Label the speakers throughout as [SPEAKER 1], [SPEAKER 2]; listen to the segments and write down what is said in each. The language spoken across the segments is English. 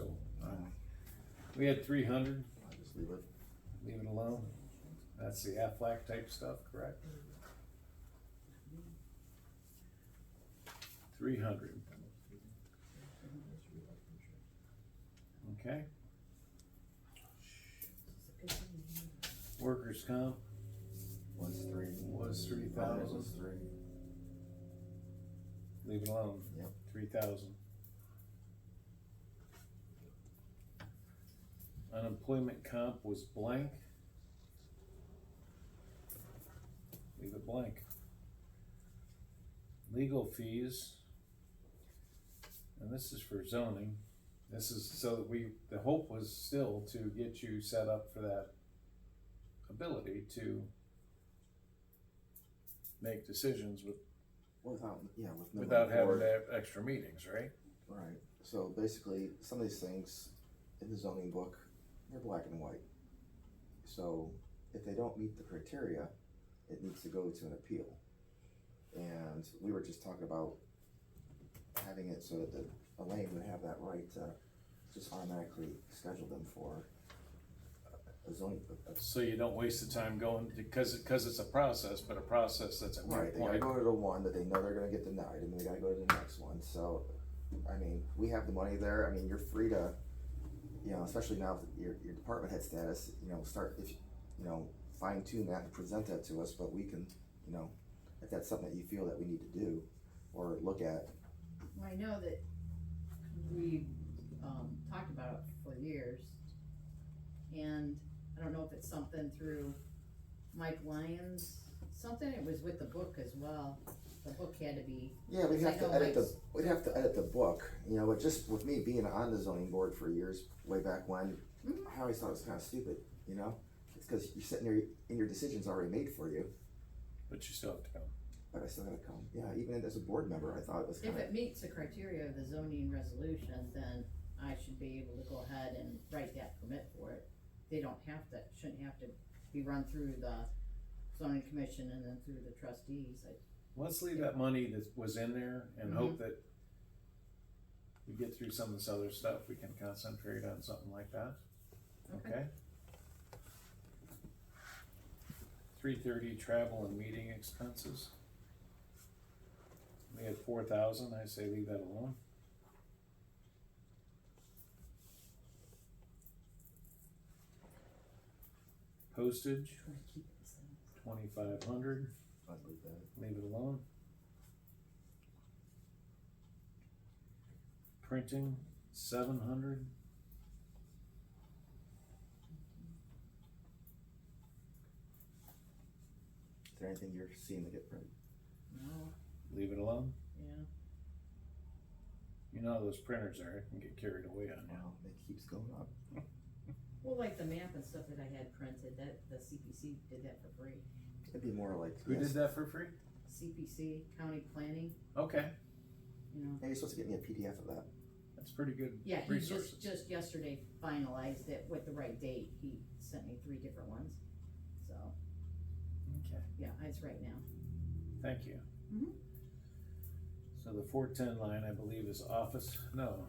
[SPEAKER 1] uh, We had three hundred,
[SPEAKER 2] I just leave it.
[SPEAKER 1] leave it alone. That's the Aflac type stuff, correct? Three hundred, okay? Workers' comp
[SPEAKER 2] Was three.
[SPEAKER 1] was three
[SPEAKER 2] That
[SPEAKER 1] thousand,
[SPEAKER 2] was three.
[SPEAKER 1] leave it alone.
[SPEAKER 2] Yep.
[SPEAKER 1] Three thousand. Unemployment comp was blank. Leave it blank. Legal fees. And this is for zoning. This is so that we, the hope was still to get you set up for that ability to make decisions with,
[SPEAKER 2] Without, yeah, with. no
[SPEAKER 1] without having
[SPEAKER 2] report.
[SPEAKER 1] to have extra meetings, right?
[SPEAKER 2] Right, so basically, some of these things in the zoning book, they're black and white. So if they don't meet the criteria, it needs to go to an appeal. And we were just talking about having it so that Elaine would have that right to just automatically schedule them for a zoning, a- a
[SPEAKER 1] So you don't waste the time going, because, because it's a process, but a process that's at one
[SPEAKER 2] Right, they gotta
[SPEAKER 1] point.
[SPEAKER 2] go to the one that they know they're gonna get denied, and then they gotta go to the next one, so, I mean, we have the money there, I mean, you're free to, you know, especially now with your, your department head status, you know, start, if, you you know, fine tune that and present that to us, but we can, you know, if that's something that you feel that we need to do, or look at,
[SPEAKER 3] Well, I know that we, um, talked about it for years. And I don't know if it's something through Mike Lyons, something, it was with the book as well. The book had to be,
[SPEAKER 2] Yeah, we'd have
[SPEAKER 3] Like
[SPEAKER 2] to
[SPEAKER 3] no
[SPEAKER 2] edit the,
[SPEAKER 3] lights.
[SPEAKER 2] we'd have to edit the book, you know, but just with me being on the zoning board for years, way back when,
[SPEAKER 3] Mhm.
[SPEAKER 2] I always thought it was kinda stupid, you know? It's cause you're sitting there, and your decision's already made for you,
[SPEAKER 1] But you still have to come.
[SPEAKER 2] but I still gotta come, yeah, even as a board member, I thought it was
[SPEAKER 3] if
[SPEAKER 2] kinda,
[SPEAKER 3] it meets the criteria of the zoning resolution, then I should be able to go ahead and write that permit for it. They don't have to, shouldn't have to be run through the zoning commission and then through the trustees, I
[SPEAKER 1] Let's leave that money that was in there and hope that we get through some of this other stuff, we can concentrate on something like that,
[SPEAKER 3] Okay.
[SPEAKER 1] okay? Three thirty, travel and meeting expenses. We had four thousand, I say leave that alone. Postage,
[SPEAKER 3] try to keep it simple.
[SPEAKER 1] twenty-five hundred.
[SPEAKER 2] I'd leave that.
[SPEAKER 1] Leave it alone. Printing, seven hundred.
[SPEAKER 2] Is there anything you're seeing that get printed?
[SPEAKER 3] No,
[SPEAKER 1] Leave it alone.
[SPEAKER 3] yeah.
[SPEAKER 1] You know how those printers are, it can get carried away on you.
[SPEAKER 2] Wow, it keeps going up.
[SPEAKER 3] Well, like the map and stuff that I had printed, that, the CPC did that for free.
[SPEAKER 2] It'd be more like,
[SPEAKER 1] Who did
[SPEAKER 2] yes,
[SPEAKER 1] that for free?
[SPEAKER 3] CPC, county planning,
[SPEAKER 1] Okay,
[SPEAKER 3] you know.
[SPEAKER 2] hey, you're supposed to get me a PDF of that,
[SPEAKER 1] that's pretty good
[SPEAKER 3] Yeah, he
[SPEAKER 1] resources.
[SPEAKER 3] just, just yesterday finalized it with the right date. He sent me three different ones. So,
[SPEAKER 1] Okay,
[SPEAKER 3] yeah, it's right now.
[SPEAKER 1] thank you.
[SPEAKER 3] Mhm.
[SPEAKER 1] So the four-ten line, I believe, is office, no,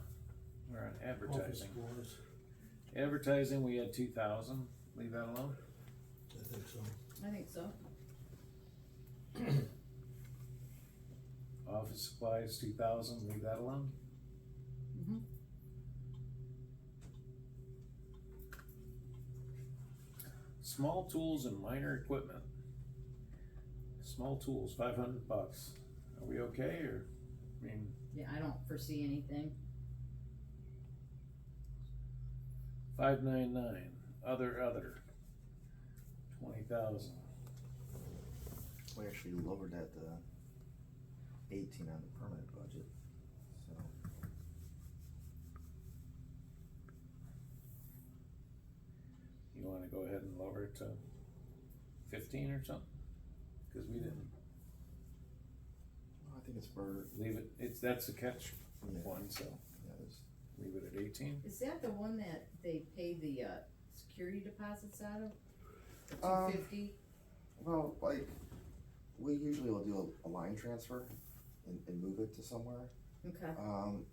[SPEAKER 1] we're on advertising.
[SPEAKER 4] Office
[SPEAKER 1] Advertising, we had two thousand, leave that alone.
[SPEAKER 4] floors, I think so.
[SPEAKER 3] I think so.
[SPEAKER 1] Office supplies, two thousand, leave that alone.
[SPEAKER 3] Mm-hmm.
[SPEAKER 1] Small tools and minor equipment. Small tools, five hundred bucks. Are we okay or, I mean,
[SPEAKER 3] Yeah, I don't foresee anything.
[SPEAKER 1] five nine nine, other, other. Twenty thousand.
[SPEAKER 2] we actually lowered that to eighteen on the permanent budget, so.
[SPEAKER 1] You wanna go ahead and lower it to fifteen or something? Cause we didn't
[SPEAKER 2] Well, I think it's for,
[SPEAKER 1] leave it, it's, that's the catch
[SPEAKER 2] yeah,
[SPEAKER 1] one, so
[SPEAKER 2] yeah, it's,
[SPEAKER 1] leave it at eighteen.
[SPEAKER 3] Is that the one that they pay the, uh, security deposits out of?
[SPEAKER 2] Um,
[SPEAKER 3] Two fifty?
[SPEAKER 2] Well, like, we usually will do a, a line transfer and, and move it to somewhere.
[SPEAKER 3] Okay,
[SPEAKER 2] Um,